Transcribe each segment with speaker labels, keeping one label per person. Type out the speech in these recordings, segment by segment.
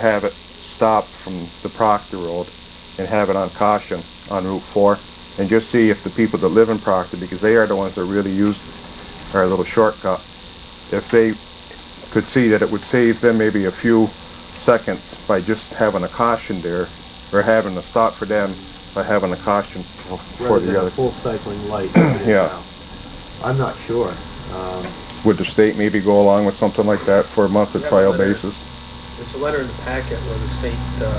Speaker 1: have it stop from the Proctor Road and have it on caution on Route 4 and just see if the people that live in Proctor, because they are the ones that really use our little shortcut, if they could see that it would save them maybe a few seconds by just having a caution there or having a stop for them by having a caution for, for
Speaker 2: rather than
Speaker 1: the
Speaker 2: a
Speaker 1: other.
Speaker 2: full cycling light. like it is
Speaker 1: Yeah.
Speaker 2: now. I'm not sure. Um,
Speaker 1: Would the state maybe go along with something like that for a month or
Speaker 3: Yeah,
Speaker 1: trial
Speaker 3: but they're-
Speaker 1: basis?
Speaker 3: There's a letter in the packet where the state uh,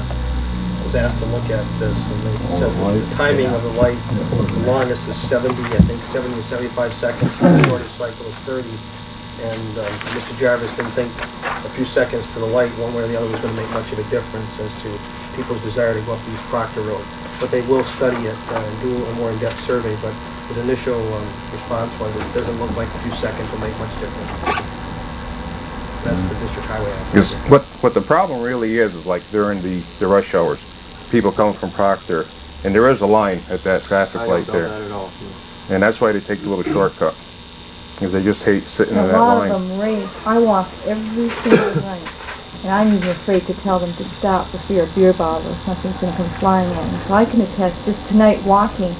Speaker 3: was asked to look at this, and they said that the timing of the light, the longest is 70, I think 70 or 75 seconds, and the shortest cycle is 30. And um, Mr. Jarvis didn't think a few seconds to the light, one way or the other, was going to make much of a difference as to people's desire to go up East Proctor Road. But they will study it uh, and do a more in-depth survey, but his initial um, response was, it doesn't look like a few seconds will make much difference. That's the district highway. Act.
Speaker 1: Because what, what the problem really is, is like during the, the rush hours, people come from Proctor, and there is a line at that traffic
Speaker 2: I
Speaker 1: light
Speaker 2: don't know that
Speaker 1: there.
Speaker 2: at all.
Speaker 1: And that's why they take the little shortcut, because they just hate sitting
Speaker 4: A
Speaker 1: in that
Speaker 4: lot of
Speaker 1: line.
Speaker 4: them race. I walk every single night. And I'm even afraid to tell them to stop for fear a beer bottle or something's going to come flying in. So I can attest, just tonight walking,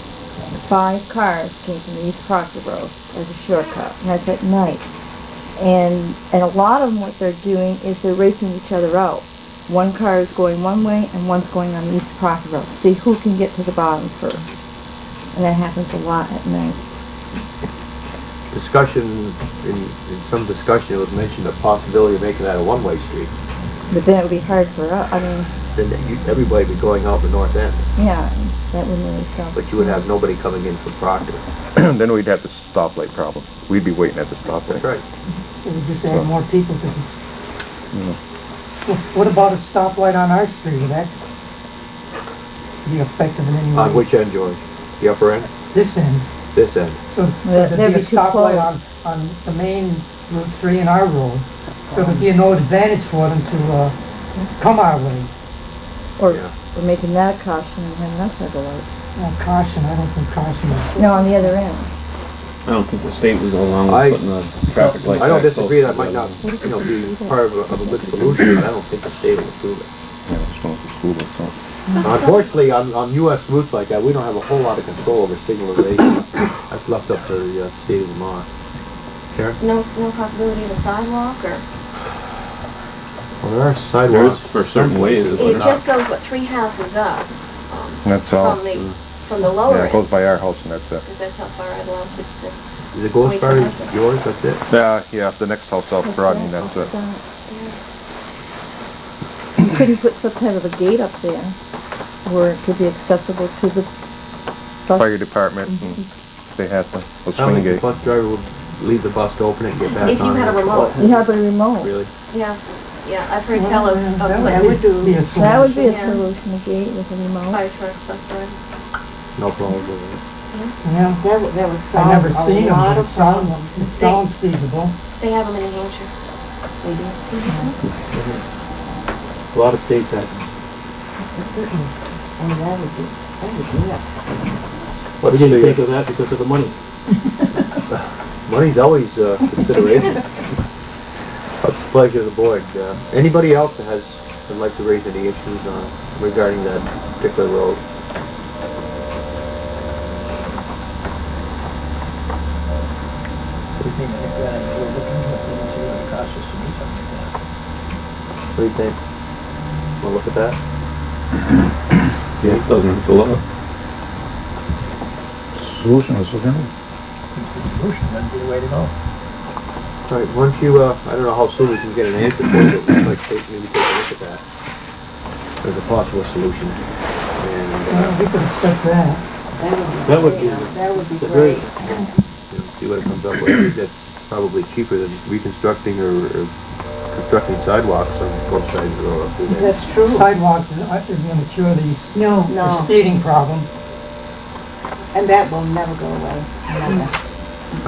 Speaker 4: five cars came from the East Proctor Road as a shortcut. And that's at night. And, and a lot of them, what they're doing is they're racing each other out. One car is going one way and one's going on the East Proctor Road. See who can get to the bottom first. And that happens a lot at night.
Speaker 2: Discussion, in, in some discussion, it was mentioned the possibility of making that a one-way street.
Speaker 4: But then it would be hard for us. I mean,
Speaker 2: Then you- everybody would be going out the north end,
Speaker 4: Yeah, that would really sound.
Speaker 2: but you would have nobody coming in from Proctor.
Speaker 1: Then we'd have the stoplight problem. We'd be waiting at the stoplight.
Speaker 2: That's right.
Speaker 5: It would just add more people to this. Wh- What about a stoplight on our street? Would that be effective in any
Speaker 2: On
Speaker 5: way?
Speaker 2: which end, George? The upper end?
Speaker 5: This end,
Speaker 2: This end?
Speaker 5: so, so
Speaker 4: That'd
Speaker 5: there'd be a
Speaker 4: be too close.
Speaker 5: stoplight on, on the main Route 3 and our road. So there'd be no advantage for them to, uh, come our way.
Speaker 4: Or,
Speaker 2: Yeah.
Speaker 4: or making that a caution and having us have a light.
Speaker 5: Well, caution, I don't think caution is.
Speaker 4: No, on the other end.
Speaker 6: I don't think the state would go along
Speaker 2: I-
Speaker 6: with putting the traffic light.
Speaker 2: I don't
Speaker 6: back close
Speaker 2: disagree,
Speaker 6: to
Speaker 2: that
Speaker 6: the
Speaker 2: might
Speaker 6: road.
Speaker 2: not, you know, be part of a, of a good solution, but I don't think the state will approve it.
Speaker 1: Yeah, it's going to school or something.
Speaker 2: Uh, Unfortunately, on, on US routes like that, we don't have a whole lot of control over signalization. That's left up to the uh, state of Vermont. Karen?
Speaker 7: No, no possibility of a sidewalk or?
Speaker 2: Well, there are
Speaker 6: There is
Speaker 2: sidewalks.
Speaker 6: for certain ways.
Speaker 7: It just goes, what, three houses up
Speaker 1: That's all. mm.
Speaker 7: from the, from the
Speaker 1: Yeah,
Speaker 7: lower
Speaker 1: it goes
Speaker 7: end?
Speaker 1: by our house and that's it.
Speaker 7: Because that's how far I love it's to.
Speaker 2: Is it goes
Speaker 7: Wait,
Speaker 2: far
Speaker 7: how's
Speaker 2: as
Speaker 7: it?
Speaker 2: yours, that's it?
Speaker 1: Yeah, Uh, yeah, the next house up, Rodney, that's it.
Speaker 4: You Couldn't put some type of a gate up there where it could be accessible to the
Speaker 1: Fire
Speaker 4: bus.
Speaker 1: department, and they had the, the
Speaker 2: I
Speaker 1: swing
Speaker 2: don't think
Speaker 1: gate.
Speaker 2: the bus driver would leave the bus to open it and get back on.
Speaker 7: If you had a
Speaker 2: it.
Speaker 7: remote.
Speaker 4: Yeah, but a remote.
Speaker 2: Really?
Speaker 7: Yeah, yeah, I've heard tell of,
Speaker 5: Well,
Speaker 7: of
Speaker 5: that
Speaker 7: like
Speaker 5: would be a
Speaker 4: That would be a
Speaker 7: Yeah.
Speaker 4: solution, a gate with a remote.
Speaker 7: fire trucks, bus driver.
Speaker 2: No problem with it.
Speaker 5: Yeah,
Speaker 8: That would, that would
Speaker 5: I've
Speaker 8: solve
Speaker 5: never seen
Speaker 8: a
Speaker 5: them,
Speaker 8: lot
Speaker 5: but
Speaker 8: of
Speaker 5: it
Speaker 8: problems.
Speaker 5: sounds, it sounds feasible.
Speaker 7: They have them in New Hampshire.
Speaker 8: They do.
Speaker 2: A lot of states have.
Speaker 8: It's certainly, I mean, that would be, that would be it.
Speaker 2: What do you think of that because of the money? Money's always uh, a consideration. It's a pleasure of the board. Uh, Anybody else that has, would like to raise any issues on regarding that particular road? What do you think? Want to look at that?
Speaker 6: Yeah, it doesn't go up.
Speaker 2: All right, why don't you, uh, I don't know how soon we can get an answer for it, but we'd like to take- maybe take a look at that. There's a possible solution. And, uh,
Speaker 5: Yeah, we could accept that.
Speaker 2: That
Speaker 8: That
Speaker 2: would
Speaker 8: would
Speaker 2: be-
Speaker 8: be, yeah, that would be
Speaker 2: It's very-
Speaker 8: great.
Speaker 2: you know, see what it comes up with. I think That's probably cheaper than reconstructing or, or constructing sidewalks on both sides of the road. up through there.
Speaker 8: That's true.
Speaker 5: Sidewalks is, uh, is gonna cure these,
Speaker 8: No,
Speaker 5: the
Speaker 8: no,
Speaker 5: skating problem.
Speaker 8: and that will never go away, never.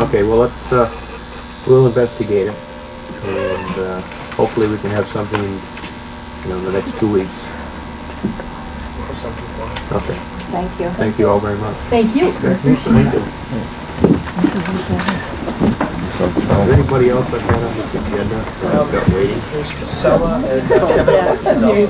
Speaker 2: Okay, well, let's, uh, we'll investigate it, and, uh, hopefully we can have something, you know, in the next two weeks.
Speaker 3: Or something for it.
Speaker 2: Okay,
Speaker 8: Thank you.
Speaker 2: thank you all very much.
Speaker 8: Thank you.
Speaker 2: Thank you.
Speaker 1: something
Speaker 2: Is
Speaker 1: else.
Speaker 2: there anybody else I've got on this agenda? that I've got waiting.
Speaker 3: Casella and uh, Kevin.